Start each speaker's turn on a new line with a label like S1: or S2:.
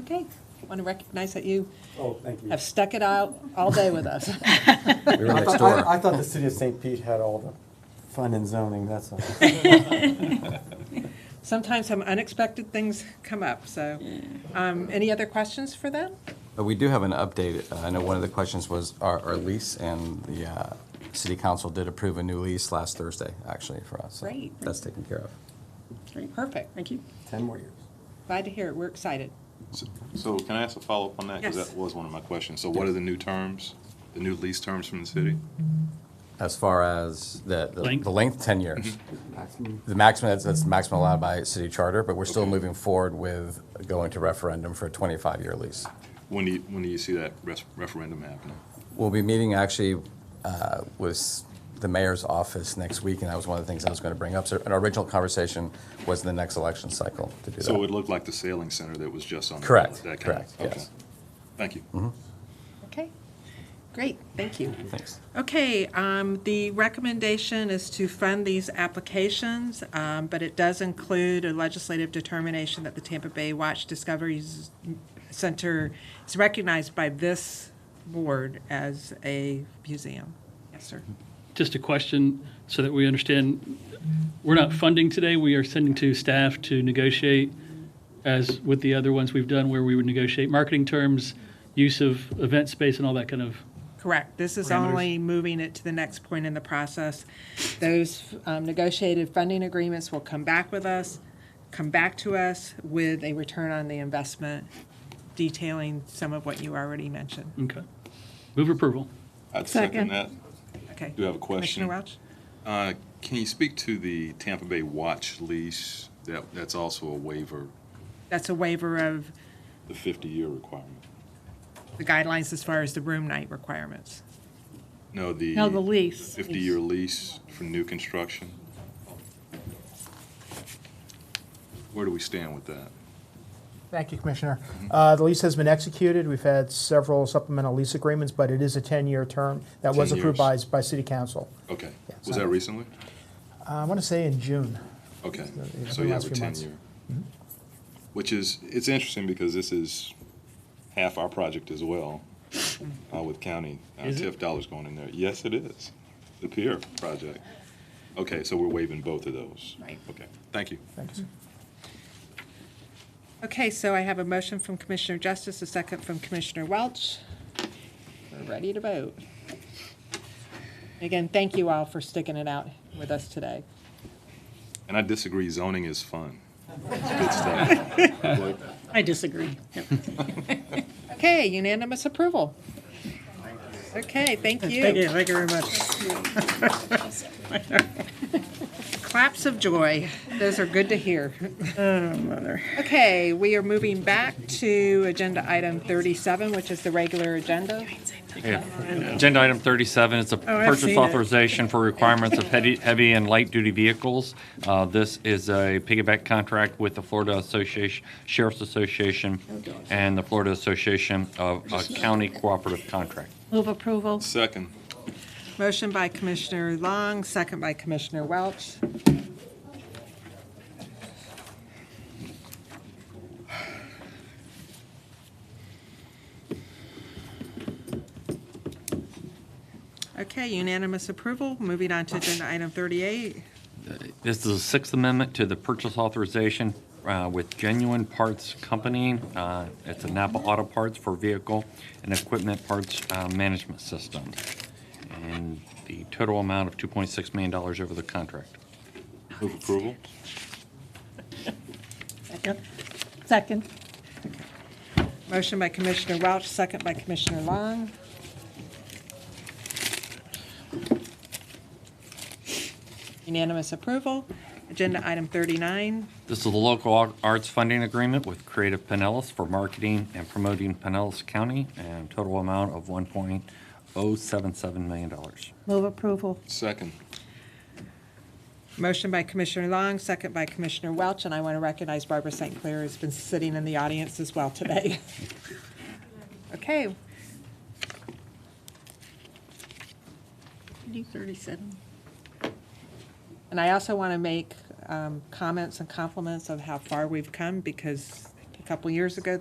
S1: Okay, want to recognize that you
S2: Oh, thank you.
S1: have stuck it out all day with us.
S3: We were
S2: I
S3: next
S2: thought, I- I
S3: door.
S2: thought the city of St. Pete had all the fun and zoning, that's all.
S1: Sometimes some unexpected things come up, so, um, any other questions for them?
S3: But we do have an update. Uh, I know one of the questions was our, our lease, and the uh, city council did approve a new lease last Thursday, actually, for us. so
S1: Great.
S3: That's taken care of.
S4: Great.
S1: Perfect.
S4: Thank you.
S2: Ten more years.
S1: Glad to hear it. We're excited.
S5: So- So can I ask a follow-up on that?
S1: Yes.
S5: Because that was one of my questions. So what are the new terms, the new lease terms from the city?
S3: Mm-hmm. As far as the, the-
S6: Length?
S3: the length, 10 years.
S2: Maximum.
S3: The maximum, that's, that's the maximum allowed by city charter, but we're still
S5: Okay.
S3: moving forward with going to referendum for a 25-year lease.
S5: When do you, when do you see that res- referendum happening?
S3: We'll be meeting actually uh, with the mayor's office next week, and that was one of the things I was going to bring up. So an original conversation was the next election cycle to do that.
S5: So it would look like the sailing center that was just on. the
S3: Correct,
S5: ballot, that kind of-
S3: correct, yes. Mm-hmm.
S5: okay. Thank you.
S1: Okay, great, thank you.
S3: Thanks.
S1: Okay, um, the recommendation is to fund these applications, um, but it does include a legislative determination that the Tampa Bay Watch Discovery Z- Center is recognized by this board as a museum. Yes, sir.
S6: Just a question so that we understand, we're not funding today, we are sending to staff to negotiate as with the other ones we've done where we would negotiate marketing terms, use of event space and all that kind of.
S1: Correct. This is
S6: Parameters.
S1: only moving it to the next point in the process. Those um, negotiated funding agreements will come back with us, come back to us with a return on the investment detailing some of what you already mentioned.
S6: Okay. Move approval.
S5: I'd second that.
S1: Okay.
S5: Do you have a question?
S1: Commissioner Welch?
S5: Uh, Can you speak to the Tampa Bay Watch lease? That, that's also a waiver,
S1: That's a waiver of
S5: the 50-year requirement.
S1: the guidelines as far as the room night requirements.
S5: No, the.
S4: No, the lease.
S5: 50-year lease for new construction. Where do we stand with that?
S7: Thank you, Commissioner. Uh, The lease has been executed. We've had several supplemental lease agreements, but it is a 10-year term that was
S5: 10
S7: approved by,
S5: years.
S7: by City Council.
S5: Okay.
S7: Yeah,
S5: Was
S7: so-
S5: that recently?
S7: Uh, I want to say in June.
S5: Okay,
S7: the- the
S5: so you
S7: last
S5: have a
S7: few months. Mm-hmm.
S5: ten-year. Which is, it's interesting because this is half our project as well,
S4: Mm-hmm.
S5: uh, with county, uh,
S6: Is it?
S5: TIF dollars going in there. Yes, it is, the pier project. Okay, so we're waiving both of those.
S1: Right.
S5: Okay, thank you.
S7: Thank you.
S1: Okay, so I have a motion from Commissioner Justice, a second from Commissioner Welch. We're ready to vote. Again, thank you all for sticking it out with us today.
S5: And I disagree, zoning is fun. It's good stuff. Like,
S4: I disagree. Yep.
S1: Okay, unanimous approval. Okay, thank you.
S7: thank you very much.
S1: Claps of joy. Those are good to hear. Oh, Okay, we are moving back to agenda item 37, which is the regular agenda.
S8: Agenda item 37 is a purchase authorization for requirements of heavy heavy and light-duty vehicles. Uh, This is a piggyback contract with the Florida Association, Sheriff's Association, and the Florida Association of uh, County Cooperative Contract.
S4: Move approval.
S5: Second,
S1: Motion by Commissioner Long, second by Commissioner Welch. Okay, unanimous approval. Moving on to agenda item 38.
S8: This is the Sixth Amendment to the purchase authorization uh, with Genuine Parts Company. Uh, It's a Napa Auto Parts for vehicle and equipment parts uh, management system. And the total amount of $2.6 million over the contract.
S5: move approval?
S4: Second. Second.
S1: Motion by Commissioner Welch, second by Commissioner Long. Unanimous approval. Agenda item 39.
S8: This is the local ar- arts funding agreement with Creative Pinellas for marketing and promoting Pinellas County, and total amount of $1.077 million.
S4: Move approval.
S5: Second,
S1: Motion by Commissioner Long, second by Commissioner Welch, and I want to recognize Barbara St. Clair, who's been sitting in the audience as well today. Okay,
S4: 37.
S1: and I also want to make um, comments and compliments of how far we've come, because a couple years ago,